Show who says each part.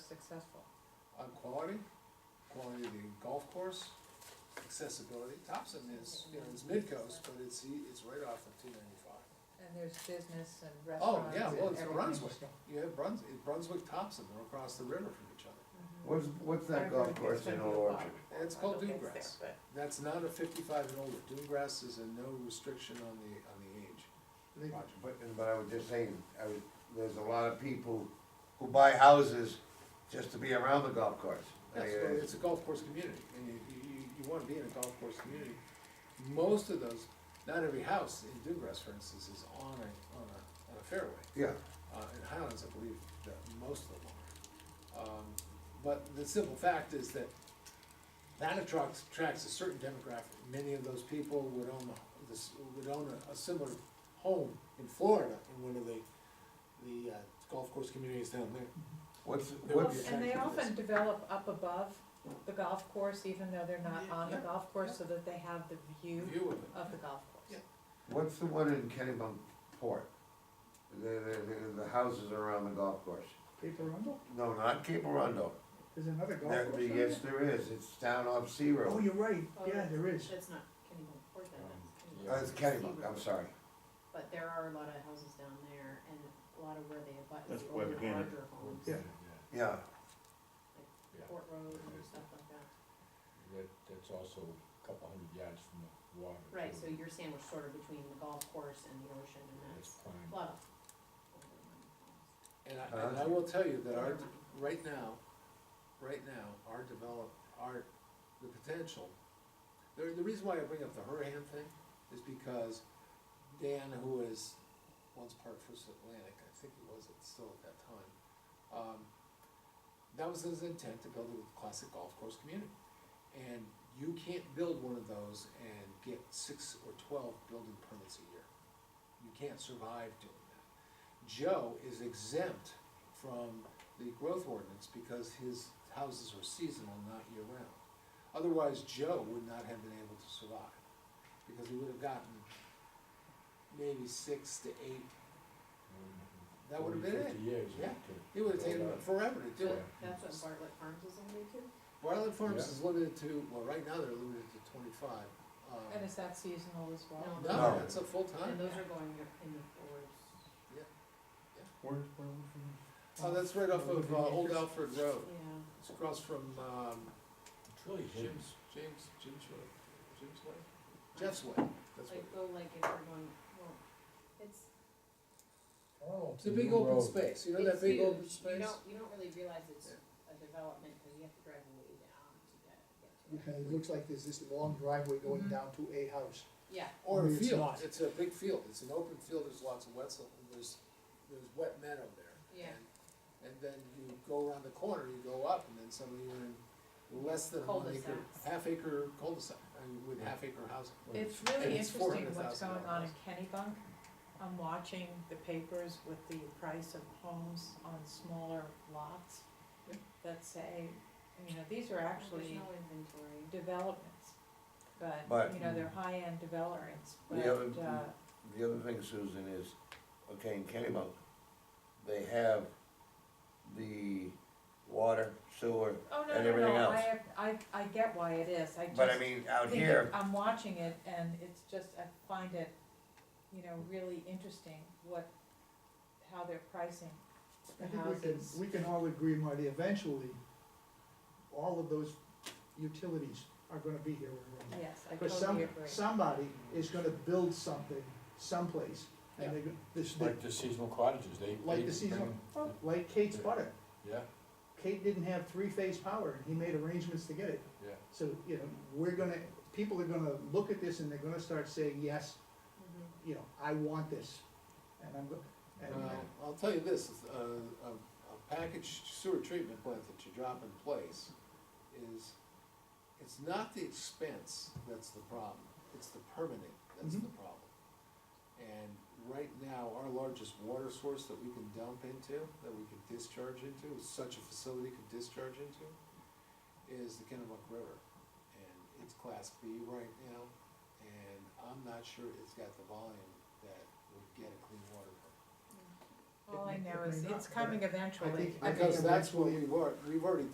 Speaker 1: successful.
Speaker 2: on quality, quality of the golf course, accessibility. Thompson is, you know, it's mid-coast, but it's, e- it's right off of two ninety-five.
Speaker 1: And there's business and
Speaker 2: Oh,
Speaker 1: restaurants and
Speaker 2: yeah, well, it's
Speaker 1: everything.
Speaker 2: Brunswick. You have Brunswick, Brunswick, Thompson, they're across the river from each other.
Speaker 1: Mm-hmm.
Speaker 3: What's, what's that golf course in Old Orchard?
Speaker 2: It's called Dewgrass. That's not a fifty-five and older. Dewgrass is a no restriction on the, on the age. Roger.
Speaker 3: But, but I would just say, I would, there's a lot of people who buy houses just to be around the golf course. I uh, mean,
Speaker 2: That's, what- it's a golf course community, and you, you, you- you wanna be in a golf course community. Most of those, not every house in Dewgrass, for instance, is on a, on a, on a fairway.
Speaker 3: Yeah,
Speaker 2: Uh, in Highlands, I believe that most of them are. Um, but the simple fact is that that attracts, attracts a certain demographic. Many of those people would own a- this, would own a, a similar home in Florida in one of the, the uh, golf course communities down there.
Speaker 3: what's,
Speaker 2: There would
Speaker 3: what's,
Speaker 2: be a
Speaker 1: And they
Speaker 2: factor to this.
Speaker 1: often develop up above the golf course, even though they're not
Speaker 2: Yeah,
Speaker 1: on the
Speaker 2: yeah,
Speaker 1: golf course, so that they have the view
Speaker 2: View of it.
Speaker 1: of the golf
Speaker 2: Yeah.
Speaker 1: course.
Speaker 3: what's the one in Kennebunkport? The, the, the, the houses around the golf course?
Speaker 4: Paper Rundle?
Speaker 3: No, not Cape Arundel.
Speaker 4: There's another golf
Speaker 3: There,
Speaker 4: course. on
Speaker 3: yes,
Speaker 4: there.
Speaker 3: there is, it's down off Sea
Speaker 4: Oh,
Speaker 3: Road.
Speaker 4: you're right, yeah, there is.
Speaker 5: That's not Kennebunkport, then,
Speaker 3: Uh, it's
Speaker 5: that's Kennebunk.
Speaker 3: Kennebunk, I'm sorry.
Speaker 5: But there are a lot of houses down there, and a lot of where they abut is
Speaker 6: That's
Speaker 5: the older,
Speaker 6: Webber Hannon.
Speaker 5: larger homes,
Speaker 4: Yeah.
Speaker 3: Yeah,
Speaker 5: Port Road and stuff like that.
Speaker 7: That, that's also a couple hundred yards from the water.
Speaker 5: Right, so
Speaker 7: too.
Speaker 5: you're sandwiched sort of between the golf course and the ocean, and
Speaker 7: That's
Speaker 5: that's
Speaker 7: prime.
Speaker 5: a lot of.
Speaker 2: And I, and I will tell you that our, right now, right now, our develop, our, the potential, the, the reason why I bring up the Hurahan thing is because Dan, who was once part of First Atlantic, I think he was it still at that time, um, that was his intent to build a classic golf course community. And you can't build one of those and get six or twelve building permits a year. You can't survive doing that. Joe is exempt from the growth ordinance because his houses are seasonal, not year-round. Otherwise, Joe would not have been able to survive, because he would have gotten maybe six to eight, that would have been it.
Speaker 7: Forty, fifty years.
Speaker 2: Yeah.
Speaker 7: to-
Speaker 2: It would have taken him forever to do
Speaker 5: But
Speaker 2: it.
Speaker 5: that's what Bartlett Farms is only to,
Speaker 2: Bartlett Farms
Speaker 7: Yeah.
Speaker 2: is limited to, well, right now they're limited to twenty-five. um,
Speaker 1: And is that seasonal as well?
Speaker 5: No.
Speaker 2: No, that's a full-time.
Speaker 5: and those are going in the fours.
Speaker 6: Where's, where was
Speaker 2: Oh, that's right off of, uh, Old Alfred Road,
Speaker 5: Yeah.
Speaker 2: it's across from, um,
Speaker 7: It's really hidden.
Speaker 2: Jim's, James, Jim's Way, Jim's Way? Jeff's Way, that's what.
Speaker 5: Like, go like if we're going, well, it's,
Speaker 7: Oh,
Speaker 2: It's a big
Speaker 7: new
Speaker 2: open
Speaker 7: road.
Speaker 2: space, you know
Speaker 5: It's
Speaker 2: that big
Speaker 5: huge.
Speaker 2: open
Speaker 5: You
Speaker 2: space?
Speaker 5: don't, you don't really realize it's a development, cause you have to drive way down to get, get to it.
Speaker 4: And it looks like there's this long driveway going
Speaker 1: Mhm.
Speaker 4: down to a house.
Speaker 5: Yeah,
Speaker 2: Or a
Speaker 4: Maybe it's
Speaker 2: field,
Speaker 4: not.
Speaker 2: it's a big field, it's an open field, there's lots of wet, so there's, there's wet meadow there.
Speaker 5: Yeah.
Speaker 2: And- And then you go around the corner, you go up, and then suddenly you're in less than one acre,
Speaker 5: Cul-de-sacs.
Speaker 2: half acre cul-de-sac, I mean, with half acre housing.
Speaker 1: It's
Speaker 2: And
Speaker 1: really
Speaker 2: it's
Speaker 1: interesting what's
Speaker 2: $400,000
Speaker 1: going on in Kennybunk. I'm watching the papers with the price of homes on smaller lots
Speaker 2: Yeah.
Speaker 1: that say, you know, these are
Speaker 5: there's
Speaker 1: actually
Speaker 5: no inventory.
Speaker 1: developments. But,
Speaker 3: But-
Speaker 1: you know, they're high-end developments,
Speaker 3: The
Speaker 1: but,
Speaker 3: other-
Speaker 1: uh,
Speaker 3: the other thing, Susan, is, okay, in Kennebunk, they have the water, sewer,
Speaker 1: oh, no,
Speaker 3: And
Speaker 1: no,
Speaker 3: everything
Speaker 1: no,
Speaker 3: else.
Speaker 1: I, have- I, I get why it is, I just.
Speaker 3: but I mean, out
Speaker 1: think
Speaker 3: here,
Speaker 1: I'm watching it and it's just, I find it, you know, really interesting what, how they're pricing
Speaker 4: I
Speaker 1: the
Speaker 4: think we can,
Speaker 1: houses.
Speaker 4: we can all agree, Marty, eventually, all of those utilities are gonna be here in Rome.
Speaker 1: Yes, I
Speaker 4: Cause some,
Speaker 1: totally agree.
Speaker 4: somebody is gonna build something someplace, and they're, go- this,
Speaker 7: Like the seasonal cottages, they.
Speaker 4: like
Speaker 7: they
Speaker 4: the season,
Speaker 7: bring-
Speaker 4: like Kate's butter.
Speaker 7: Yeah,
Speaker 4: Kate didn't have three-phase power, and he made arrangements to get it.
Speaker 7: yeah.
Speaker 4: So, you know, we're gonna, people are gonna look at this and they're gonna start saying, yes,
Speaker 5: Mhm.
Speaker 4: you know, I want this. And I'm, go- and,
Speaker 2: Well, I'll tell you this, is, uh, a, a packaged sewer treatment plant that you drop in place is, it's not the expense that's the problem, it's the permanent that's the problem. And right now, our largest water source that we can dump into, that we could discharge into, such a facility could discharge into, is the Kennebunk River. And it's class B right now, and I'm not sure it's got the volume that would get a clean water permit.
Speaker 8: All I know
Speaker 1: It may
Speaker 8: is
Speaker 1: not,
Speaker 8: it's
Speaker 1: but
Speaker 8: coming
Speaker 1: I
Speaker 8: eventually.
Speaker 1: think- I think
Speaker 4: Because that's what
Speaker 1: eventually-
Speaker 4: we were, we've already